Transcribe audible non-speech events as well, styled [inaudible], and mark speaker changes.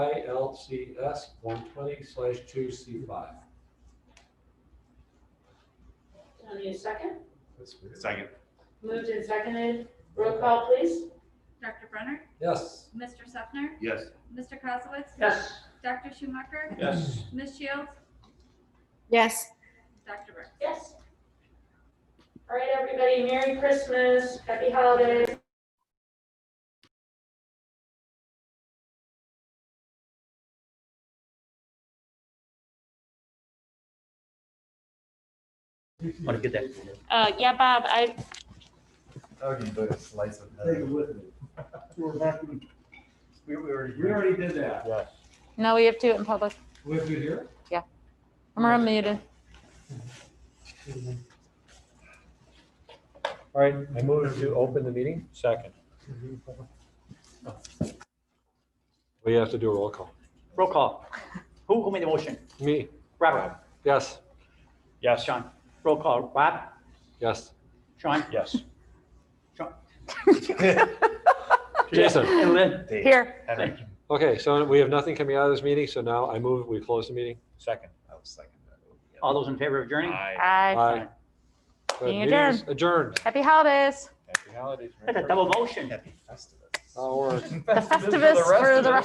Speaker 1: ILCS one twenty slash two C five.
Speaker 2: I need a second.
Speaker 3: Second.
Speaker 2: Moved and seconded. Roll call, please.
Speaker 4: Dr. Brenner,
Speaker 1: Yes.
Speaker 4: Mr. Sefner,
Speaker 3: Yes.
Speaker 4: Mr. Kozowitz,
Speaker 2: Yes.
Speaker 4: Dr. Schumacher,
Speaker 3: Yes.
Speaker 4: Ms. Shields,
Speaker 5: yes.
Speaker 4: Dr. Burks.
Speaker 2: Yes. All right, everybody, Merry Christmas, Happy Holidays.
Speaker 6: Want to get that?
Speaker 7: Uh, yeah, Bob, I,
Speaker 8: Okay, but a slice of
Speaker 9: Take it
Speaker 8: heaven.
Speaker 9: with me. We're back in-
Speaker 8: We we already.
Speaker 9: We already did that.
Speaker 8: Yeah.
Speaker 7: no, we have to do it in public.
Speaker 1: We have to hear?
Speaker 7: I'm unmuted.
Speaker 6: All right, I move to open the meeting. Second.
Speaker 1: We have to do a roll call.
Speaker 6: Roll call. Who, who made the motion?
Speaker 1: Me,
Speaker 6: Robert?
Speaker 1: yes,
Speaker 6: Yes. Sean? Roll call. Rob?
Speaker 1: yes.
Speaker 6: Sean? Yes. [laughs] Sean?
Speaker 1: Jason.
Speaker 6: And Lynn?
Speaker 8: Dave,
Speaker 7: Here,
Speaker 8: Henry,
Speaker 1: Okay, so we have nothing coming out of this meeting, so now I move, we close the meeting.
Speaker 6: Second.
Speaker 8: I was second. that.
Speaker 6: All those in favor of adjourning?
Speaker 7: aye.
Speaker 1: Aye. Good.
Speaker 7: Meeting
Speaker 1: Meeting is Adjourned.
Speaker 7: Happy holidays.
Speaker 8: Happy holidays.
Speaker 6: That's a
Speaker 8: Merry
Speaker 6: double Oh.
Speaker 8: Christmas.
Speaker 6: motion.
Speaker 8: Happy Festivus. [laughs]
Speaker 1: Our
Speaker 7: The Festivus for the rest